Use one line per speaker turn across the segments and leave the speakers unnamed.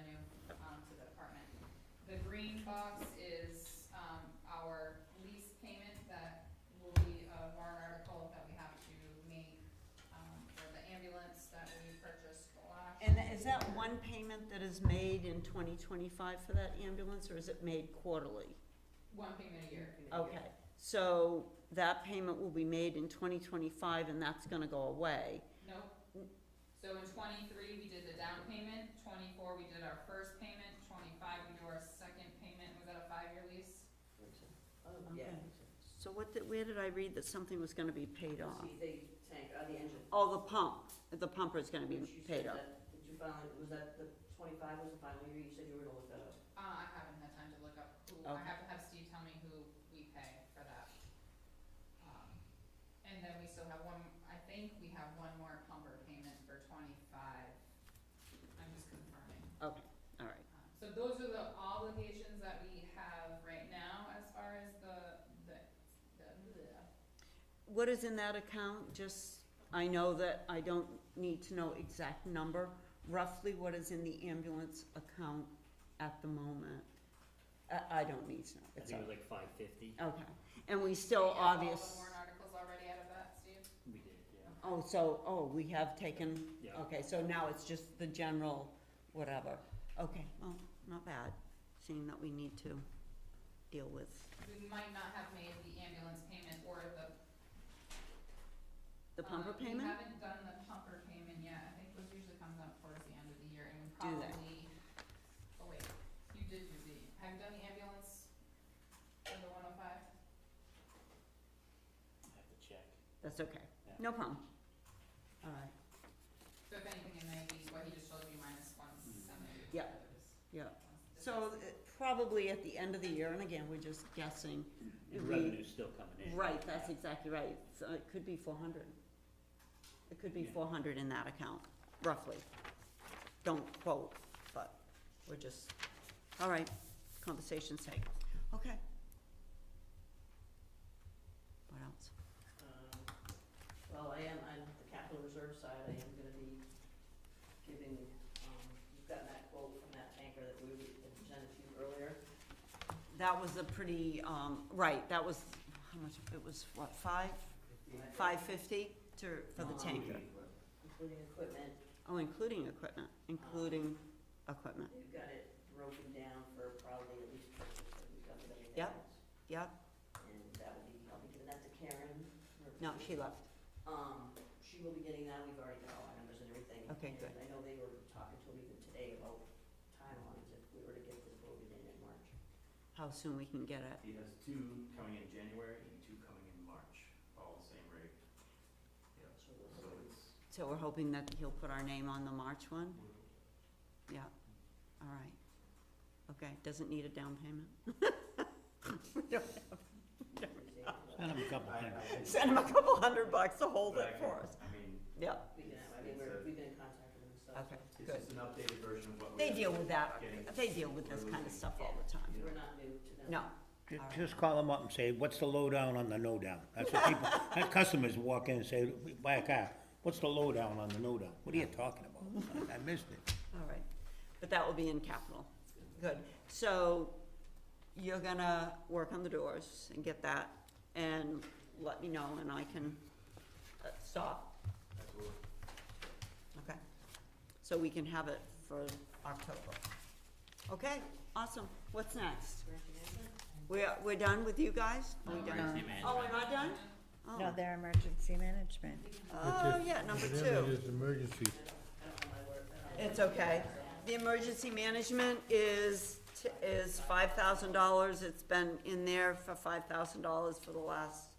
um, box is, um, our lease payment that will be a warrant article that we have to make, um, for the ambulance that we purchased last.
And tha- is that one payment that is made in twenty twenty-five for that ambulance, or is it made quarterly?
One payment a year.
Okay, so that payment will be made in twenty twenty-five and that's gonna go away.
Nope. So in twenty-three, we did the down payment, twenty-four, we did our first payment, twenty-five, we do our second payment, was that a five-year lease?
Oh,
Okay.
yeah.
So what did, where did I read that something was gonna be paid off?
See, they tank, uh, the engine.
Oh, the pump, the pumper is gonna be
Which you
paid
said
off.
that- Did you finally, was that the twenty-five was the final year, you said you were gonna look that up?
Uh, I haven't had time to look up who, I
Okay.
have to have Steve tell me who we pay for that. Um, And then we still have one, I think we have one more pumper payment for twenty-five, I'm just confirming.
Okay, all right.
Um, So those are the obligations that we have right now as far as the, the, the, the
What is in that account, just, I know that I don't need to know exact number, roughly what is in the ambulance account at the moment? I, I don't need to know,
I
it's
think it was
okay.
like five fifty,
Okay, and we
We
still
have all the
obvious,
warrant articles already out of that, Steve?
we did, yeah,
oh, so, oh, we have taken,
yeah.
okay, so now it's just the general whatever. Okay, well, not bad, seeing that we need to deal with,
We might not have made the ambulance payment or the.
the pumper
um, We
payment?
haven't done the pumper payment yet, I think those usually comes up towards the end of the year and we
Do they?
probably, oh wait, you did do the, have you done the ambulance for the one oh five?
I have to check.
That's okay,
Yeah.
no problem. All right,
So if anything, it may be what he just showed you minus one seventy.
Yeah. yeah. So uh, probably at the end of the year, and again, we're just guessing,
And
We-
revenue's still coming in.
right, that's exactly right, so it could be four hundred. It could be
Yeah.
four hundred in that account, roughly. Don't quote, but we're just, all right, conversation's sake, okay. What else?
Um, Well, I am, on the capital reserve side, I am gonna be giving, um, you've gotten that quote from that tanker that we had presented to you earlier.
That was a pretty, um, right, that was, how much, it was what, five, five fifty to, for the
Um,
tanker?
Including equipment,
Oh, including equipment, including equipment.
you've got it broken down for probably at least, we've got everything
Yep.
else.
Yep,
And that will be, I'll be giving that to Karen. for-
no, she left.
Um, she will be getting that, we've already got all our numbers and everything.
Okay,
And
good.
I know they were talking to me even today about timelines, if we were to get this voted in in March.
How soon we can get it.
He has two coming in January and two coming in March, all the same rate. Yeah,
So we'll
so it's,
So we're hoping that he'll put our name on the March one? Yeah, all right. Okay, doesn't need a down payment?
But
a couple
I, I think,
Send him a couple hundred bucks to hold
but I
it
can,
for us.
I mean,
Yeah,
We can, I mean, we're, we've been in contact with them and stuff.
okay,
it's
good.
just an updated version of what we.
They
have.
deal with that,
Getting-
they deal with this kind of stuff all the time.
We're not new to them.
No,
Ju-
All right.
Just call them up and say, what's the lowdown on the no-down? That's what people, that customers walk in and say, "We buy a car, what's the lowdown on the no-down? What are you talking about? I missed it.
all right. But that will be in capital. Good. So you're gonna work on the doors and get that and let me know and I can uh, stop
Absolutely.
Okay. So we can have it for October. Okay, awesome. What's next? We're, we're done with you guys? Are we done?
Emergency
Oh,
management.
we're not done?
No,
Oh.
they're emergency management.
Oh, yeah, number two.
It's emergency.
It's okay. The emergency management is, t- is five thousand dollars. It's been in there for five thousand dollars for the last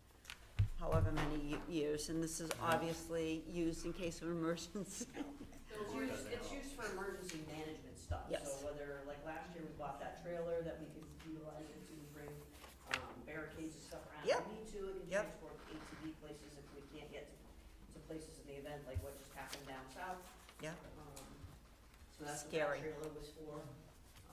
however many ye- years. And this is obviously used in case of emergency.
So It's used, it's used for emergency management stuff.
Yes.
So whether, like last year, we bought that trailer that we could utilize it to bring um, barricades and stuff around. if
Yep.
We need to, it can
Yep.
transport ATV places if we can't get to, to places in the event, like what just happened down south.
Yeah.
Um, So that's what
Scary.
that trailer was for.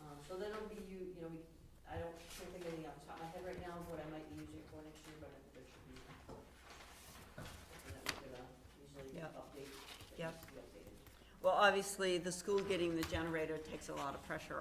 Um, So then it'll be, you, you know, we, I don't, can't think of anything off the top of my head right now of what I might be using it for next year, but I think there should be. something that we could, uh, Usually
Yep.
update, that
Yep.
needs to be updated.
Well, obviously, the school getting the generator takes a lot of pressure